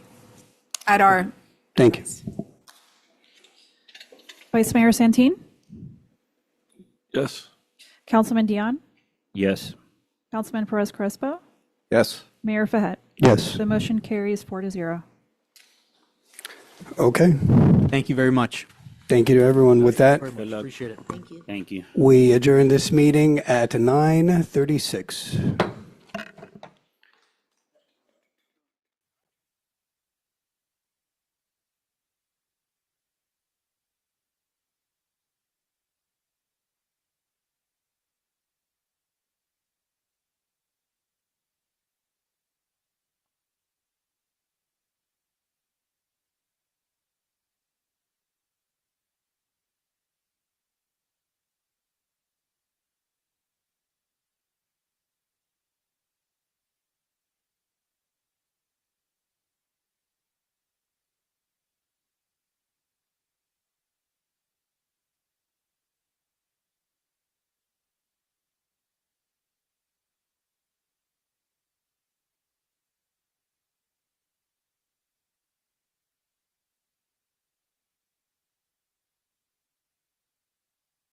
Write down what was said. at our, Thank you. Vice Mayor Santin, Yes. Councilman Dion, Yes. Councilman Perez Crespo, Yes. Mayor Fahet. Yes, The motion carries four to zero. okay. Thank you very much. Thank you to everyone. With that, Very much. Appreciate it. Thank you. we adjourn this meeting at 9:36.